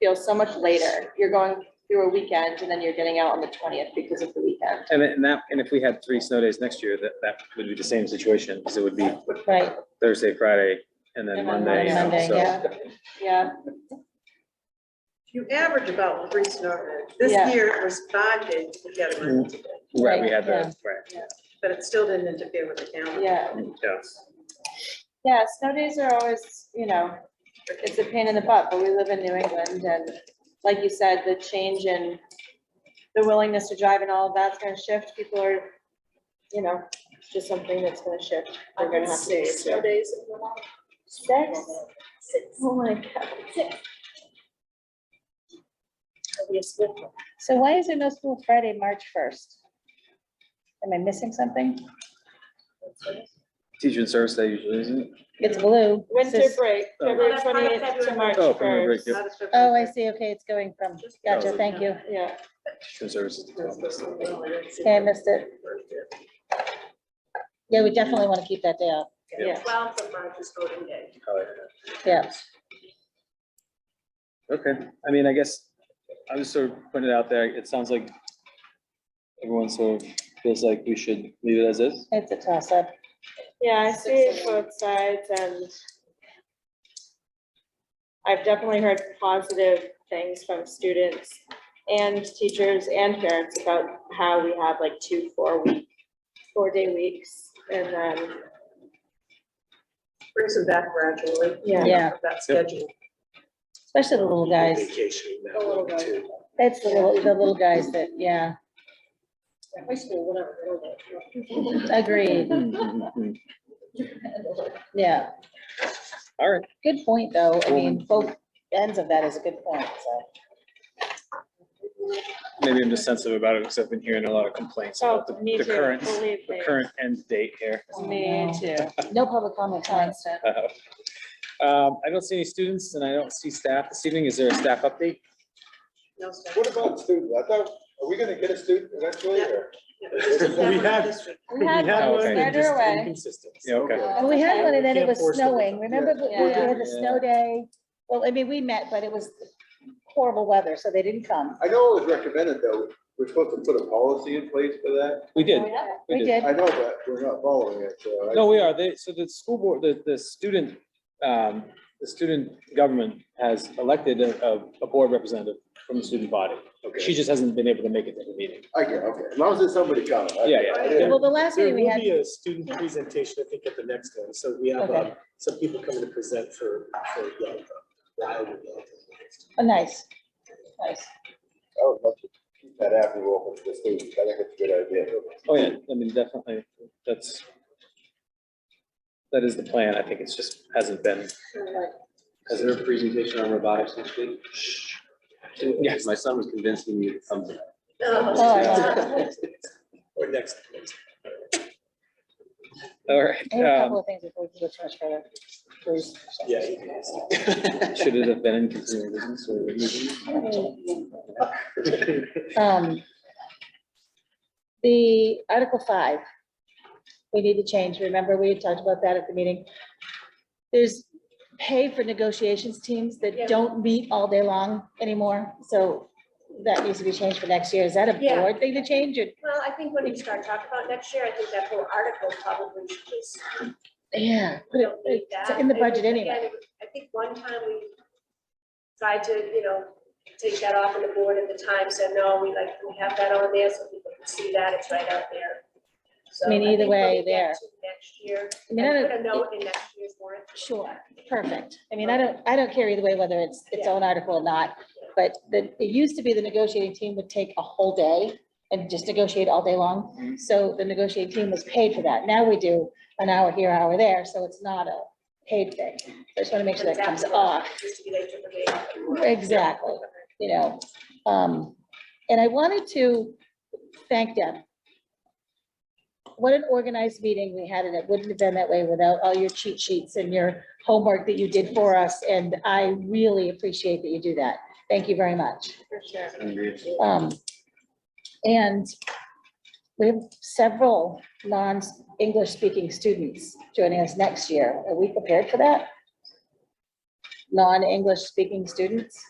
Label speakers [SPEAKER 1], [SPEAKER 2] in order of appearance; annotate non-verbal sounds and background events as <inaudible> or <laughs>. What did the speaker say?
[SPEAKER 1] feels so much later. You're going through a weekend and then you're getting out on the twentieth because of the weekend.
[SPEAKER 2] And then that, and if we had three snow days next year, that, that would be the same situation, because it would be
[SPEAKER 1] Right.
[SPEAKER 2] Thursday, Friday, and then
[SPEAKER 1] And then
[SPEAKER 2] Monday. you know,
[SPEAKER 1] Monday,
[SPEAKER 2] so-
[SPEAKER 1] yeah. Yeah,
[SPEAKER 3] You average about three snow days. This
[SPEAKER 1] Yeah.
[SPEAKER 3] year it was five days to get around today,
[SPEAKER 2] Right, we had
[SPEAKER 1] Yeah.
[SPEAKER 2] the, right,
[SPEAKER 3] but it still didn't interfere with the calendar.
[SPEAKER 1] yeah,
[SPEAKER 2] yes.
[SPEAKER 1] yeah. Snow days are always, you know, it's a pain in the butt, but we live in New England and like you said, the change in the willingness to drive and all of that's gonna shift. People are, you know, it's just something that's gonna shift. They're gonna have to.
[SPEAKER 3] Six
[SPEAKER 1] days. Six? Oh my God.
[SPEAKER 4] So why is there no school Friday, March first? Am I missing something?
[SPEAKER 2] Teacher and service day usually isn't.
[SPEAKER 4] It's blue. It's
[SPEAKER 1] Winter
[SPEAKER 4] just-
[SPEAKER 1] break,
[SPEAKER 2] Oh.
[SPEAKER 1] February
[SPEAKER 3] That's part of
[SPEAKER 1] twenty-eighth to
[SPEAKER 3] February.
[SPEAKER 1] March
[SPEAKER 2] Oh, February break,
[SPEAKER 1] first.
[SPEAKER 2] yep.
[SPEAKER 3] Not as strict
[SPEAKER 4] Oh, I
[SPEAKER 3] as-
[SPEAKER 4] see. Okay, it's going from, gotcha, thank you.
[SPEAKER 1] Yeah,
[SPEAKER 2] Teacher and services.
[SPEAKER 4] Okay, I missed it. Yeah, we definitely want to keep that day off.
[SPEAKER 1] yeah.
[SPEAKER 3] Twelve of March is voting day.
[SPEAKER 4] Yeah.
[SPEAKER 2] Okay, I mean, I guess, I was sort of putting it out there, it sounds like everyone sort of feels like we should leave it
[SPEAKER 1] <laughs>
[SPEAKER 2] as is.
[SPEAKER 4] It's a toss up.
[SPEAKER 1] Yeah, I see both sides and I've definitely heard positive things from students and teachers and parents about how we have like two, four week, four day weeks and then,
[SPEAKER 3] Brings them back gradually.
[SPEAKER 1] Yeah.
[SPEAKER 4] Yeah.
[SPEAKER 3] That schedule.
[SPEAKER 4] Especially the little guys. It's the little, the little guys that, yeah,
[SPEAKER 3] High school, whatever, they're
[SPEAKER 4] <laughs>
[SPEAKER 3] all
[SPEAKER 4] agreed. Yeah.
[SPEAKER 2] All right.
[SPEAKER 4] Good point, though. I mean, both ends of that is a good point, so.
[SPEAKER 2] Maybe I'm just sensitive about it, because I've been hearing a lot of complaints
[SPEAKER 1] so
[SPEAKER 2] about the,
[SPEAKER 1] Oh, me
[SPEAKER 2] the
[SPEAKER 1] too,
[SPEAKER 2] current,
[SPEAKER 1] believe
[SPEAKER 2] the
[SPEAKER 1] me.
[SPEAKER 2] current end date here.
[SPEAKER 1] Me too.
[SPEAKER 4] No public comment time.
[SPEAKER 2] Um, I don't see any students and I don't see staff this evening. Is there a staff update?
[SPEAKER 3] No stuff.
[SPEAKER 5] What about student? I thought, are we gonna get a student eventually or?
[SPEAKER 6] We have-
[SPEAKER 3] This week.
[SPEAKER 1] We had
[SPEAKER 2] had
[SPEAKER 1] one,
[SPEAKER 2] one,
[SPEAKER 1] it's
[SPEAKER 2] they
[SPEAKER 1] right away.
[SPEAKER 6] Inconsistent.
[SPEAKER 2] Yeah, okay.
[SPEAKER 4] Well, we had one and then it
[SPEAKER 6] Can't
[SPEAKER 4] was
[SPEAKER 6] force the
[SPEAKER 4] snowing.
[SPEAKER 6] winter.
[SPEAKER 4] Remember, but we
[SPEAKER 1] Yeah.
[SPEAKER 4] had the snow day. Well, I mean, we met, but it was horrible weather, so they didn't come.
[SPEAKER 5] I know it was recommended though, we're supposed to put a policy in place for that.
[SPEAKER 2] We
[SPEAKER 1] Oh,
[SPEAKER 2] did,
[SPEAKER 4] We did.
[SPEAKER 5] I know, but we're not following it, so. I-
[SPEAKER 2] No, we are. They, so the school board, the, the student, um, the student government has elected a, a- a board representative from the student body. She
[SPEAKER 5] Okay,
[SPEAKER 2] just hasn't been able to make it to the meeting.
[SPEAKER 5] I get, okay, as long as there's somebody coming. I-
[SPEAKER 2] Yeah, yeah.
[SPEAKER 5] I-
[SPEAKER 4] Well, the last
[SPEAKER 6] There
[SPEAKER 4] meeting we
[SPEAKER 6] will
[SPEAKER 4] had,
[SPEAKER 6] be a student presentation, I think, at the next one, so we have,
[SPEAKER 4] Okay.
[SPEAKER 6] uh, some people coming to present for, for uh, Yalta. Wild and Yalta.
[SPEAKER 4] oh, nice.
[SPEAKER 6] <laughs>
[SPEAKER 4] Nice.
[SPEAKER 5] I would love to keep that avenue open for the students. I think it's a good idea.
[SPEAKER 2] Oh, yeah, I mean, definitely, that's, that is the plan. I think it's just hasn't been.
[SPEAKER 7] Is there a presentation on robotics next week?
[SPEAKER 2] Yes.
[SPEAKER 7] My son was convincing me to come to
[SPEAKER 3] Oh,
[SPEAKER 4] Oh, I love it.
[SPEAKER 7] that.
[SPEAKER 6] Or next, next.
[SPEAKER 2] All
[SPEAKER 4] I had a
[SPEAKER 2] right. um,
[SPEAKER 4] couple of things before we go too much further. Bruce.
[SPEAKER 6] yeah. you can ask.
[SPEAKER 2] um, Should it have been in continuing business or?
[SPEAKER 4] Um, The Article five, we need to change, remember, we had talked about that at the meeting. There's pay for negotiations teams that don't meet all day long anymore, so that needs to be changed for next year, is that a
[SPEAKER 8] Yeah.
[SPEAKER 4] board thing to change, or?
[SPEAKER 8] Well, I think when we start talking about next year, I think that whole article probably should just.
[SPEAKER 4] Yeah.
[SPEAKER 8] we don't need
[SPEAKER 4] It's
[SPEAKER 8] that.
[SPEAKER 4] in the
[SPEAKER 8] I think,
[SPEAKER 4] budget anyway.
[SPEAKER 8] again, I think one time we tried to, you know, take that off and the board at the time said, no, we like, we have that on there so people can see that, it's right out there. So
[SPEAKER 4] I mean, either
[SPEAKER 8] think when
[SPEAKER 4] way,
[SPEAKER 8] we get
[SPEAKER 4] there.
[SPEAKER 8] to Next year,
[SPEAKER 4] I mean, I
[SPEAKER 8] and put
[SPEAKER 4] don't-
[SPEAKER 8] a note in next year's warrant.
[SPEAKER 4] Sure, perfect. I mean, I don't, I don't care either way whether it's its own article or not, but the, it used to be the negotiating team would take a whole day and just negotiate all day long. So the negotiating team was paid for that. Now we do an hour here, hour there, so it's not a paid thing. So I just want to make sure that comes off,
[SPEAKER 8] Just to be like, took away off the warrant.
[SPEAKER 4] Exactly. you know? Um, and I wanted to thank Deb. What an organized meeting we had, and it wouldn't have been that way without all your cheat sheets and your homework that you did for us, and I really appreciate that you do that. Thank you very much.
[SPEAKER 1] For sure.
[SPEAKER 4] Um, and we have several non-English speaking students joining us next year. Are we prepared for that? Non-English speaking students?